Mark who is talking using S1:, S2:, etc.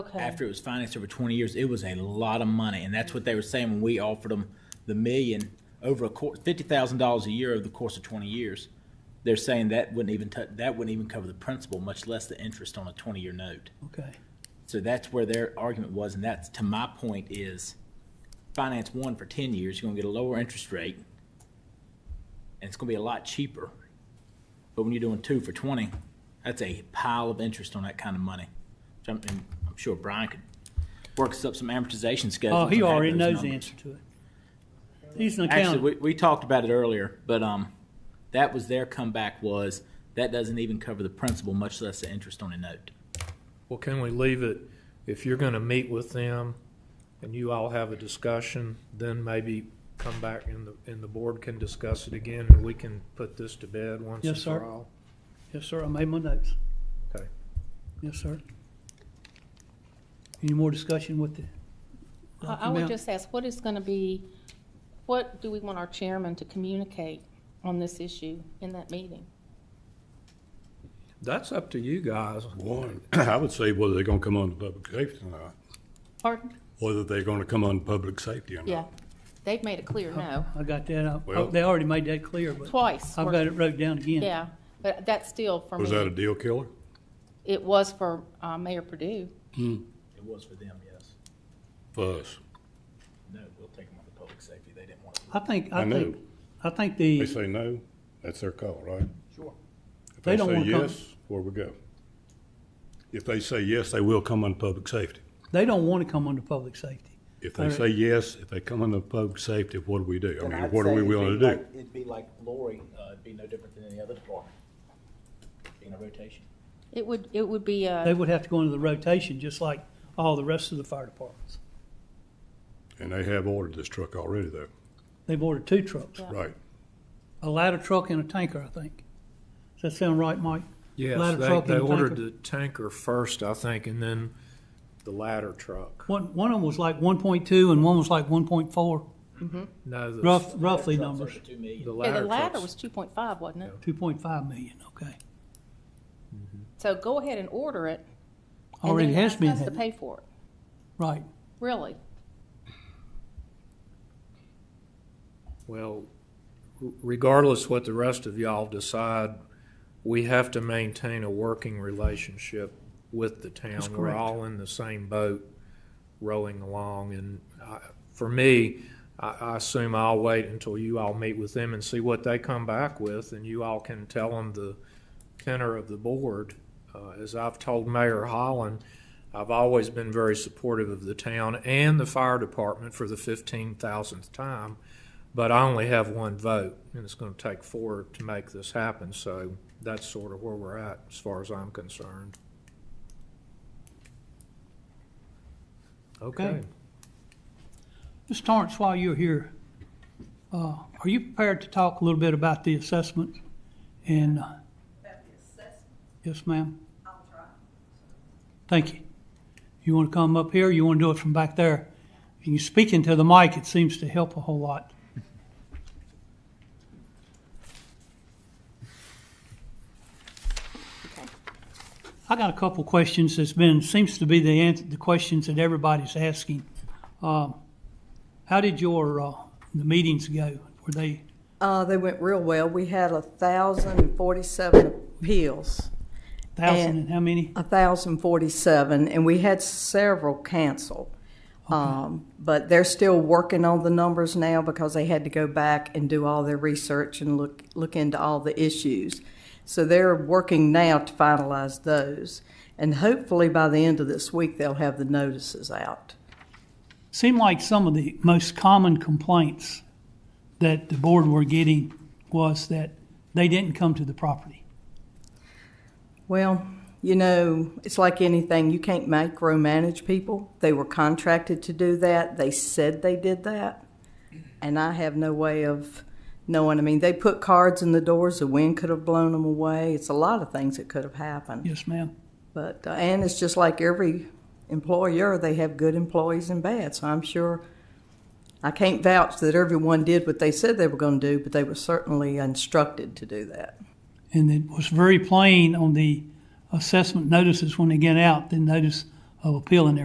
S1: after it was financed over twenty years, it was a lot of money, and that's what they were saying when we offered them the million over a course, fifty thousand dollars a year over the course of twenty years. They're saying that wouldn't even tou- that wouldn't even cover the principal, much less the interest on a twenty-year note.
S2: Okay.
S1: So that's where their argument was, and that's to my point is finance one for ten years, you're gonna get a lower interest rate. And it's gonna be a lot cheaper. But when you're doing two for twenty, that's a pile of interest on that kind of money. Which I'm, and I'm sure Brian could work us up some amortization schedules.
S2: Oh, he
S1: and add
S2: already
S1: those
S2: knows the
S1: numbers.
S2: answer to it. He's an
S1: Actually,
S2: accountant.
S1: we, we talked about it earlier, but, um, that was their comeback was, that doesn't even cover the principal, much less the interest on a note.
S3: Well, can we leave it, if you're gonna meet with them and you all have a discussion, then maybe come back and the, and the board can discuss it again and we can put this to bed once
S2: Yes,
S3: and
S2: sir.
S3: for all?
S2: Yes, sir, I made my notes.
S3: Okay.
S2: Yes, sir. Any more discussion with the?
S4: I I would
S2: amount?
S4: just ask, what is going to be, what do we want our chairman to communicate on this issue in that meeting?
S3: That's up to you guys.
S5: One, I would say whether they're gonna come on to public safety or not,
S4: Pardon?
S5: whether they're gonna come on to public safety or
S4: Yeah,
S5: not.
S4: they've made it clear, no,
S2: I got that. I-
S5: Well-
S2: They already made that clear, but
S4: twice.
S2: I've got it wrote down again.
S4: Yeah, but that's still for
S5: Was that a
S4: me,
S5: deal killer?
S4: it was for uh, Mayor Purdue.
S1: It was for them, yes.
S5: For us.
S1: No, we'll take them on the public safety, they didn't want to.
S2: I think, I
S5: I
S2: think,
S5: know.
S2: I think
S5: They
S2: the,
S5: say no, that's their call, right?
S2: Sure.
S5: If
S2: They
S5: they
S2: don't
S5: say
S2: wanna come.
S5: yes, where we go? If they say yes, they will come on to public safety.
S2: they don't want to come under public safety.
S5: If they
S2: Alright.
S5: say yes, if they come on to public safety, what do we do? I
S1: And
S5: mean,
S1: I'd
S5: what are
S1: say
S5: we
S1: it'd
S5: willing
S1: be
S5: to do?
S1: like- It'd be like Lori, uh, it'd be no different than any other department, in a rotation.
S4: It would, it would be, uh,
S2: They would have to go into the rotation, just like all the rest of the fire departments.
S5: And they have ordered this truck already though,
S2: They've ordered two trucks,
S4: Yeah.
S5: right?
S2: a ladder truck and a tanker, I think. Does that sound right, Mike?
S3: Yes,
S2: Ladder
S3: they,
S2: truck
S3: they
S2: and
S3: ordered
S2: tanker.
S3: the tanker first, I think, and then the ladder truck.
S2: One, one of them was like one point two and one was like one point four,
S3: No, the-
S2: rough, roughly numbers,
S1: Two million.
S3: The
S4: yeah,
S3: ladder
S4: the ladder
S3: truck's
S4: was 2.5, wasn't it?
S2: two point five million, okay.
S4: So go ahead and order it. and
S2: Already
S4: then
S2: has been,
S4: Ask us to
S2: hadn't it?
S4: pay for it,
S2: right.
S4: really.
S3: Well, r- regardless what the rest of y'all decide, we have to maintain a working relationship with the
S2: That's
S3: town. We're
S2: correct.
S3: all in the same boat rowing along. And I, for me, I, I assume I'll wait until you all meet with them and see what they come back with. And you all can tell them the tenor of the board. Uh, as I've told Mayor Holland, I've always been very supportive of the town and the fire department for the fifteen thousandth time. But I only have one vote, and it's gonna take four to make this happen, so that's sort of where we're at, as far as I'm concerned. Okay.
S2: Okay. Ms. Torrance, while you're here, uh, are you prepared to talk a little bit about the assessment? And, uh,
S6: About the assessment,
S2: yes, ma'am,
S6: I'll try.
S2: thank you. You want to come up here, or you want to do it from back there? If you speak into the mic, it seems to help a whole lot. I got a couple questions that's been, seems to be the answer, the questions that everybody's asking. Um, How did your, uh, the meetings go? Were they,
S7: Uh, they went real well. We had a thousand and forty-seven appeals,
S2: thousand
S7: And-
S2: and how many?
S7: a thousand forty-seven, and we had several canceled. Um, but they're still working on the numbers now because they had to go back and do all their research and look, look into all the issues. So they're working now to finalize those. And hopefully by the end of this week, they'll have the notices out.
S2: Seemed like some of the most common complaints that the board were getting was that they didn't come to the property.
S7: Well, you know, it's like anything. You can't micromanage people. They were contracted to do that. They said they did that. And I have no way of knowing. I mean, they put cards in the doors. The wind could have blown them away. It's a lot of things that could have happened.
S2: Yes, ma'am.
S7: But, uh, and it's just like every employer, they have good employees and bad. So I'm sure I can't vouch that everyone did what they said they were going to do, but they were certainly instructed to do that.
S2: And it was very plain on the assessment notices when they get out, the notice of appealing their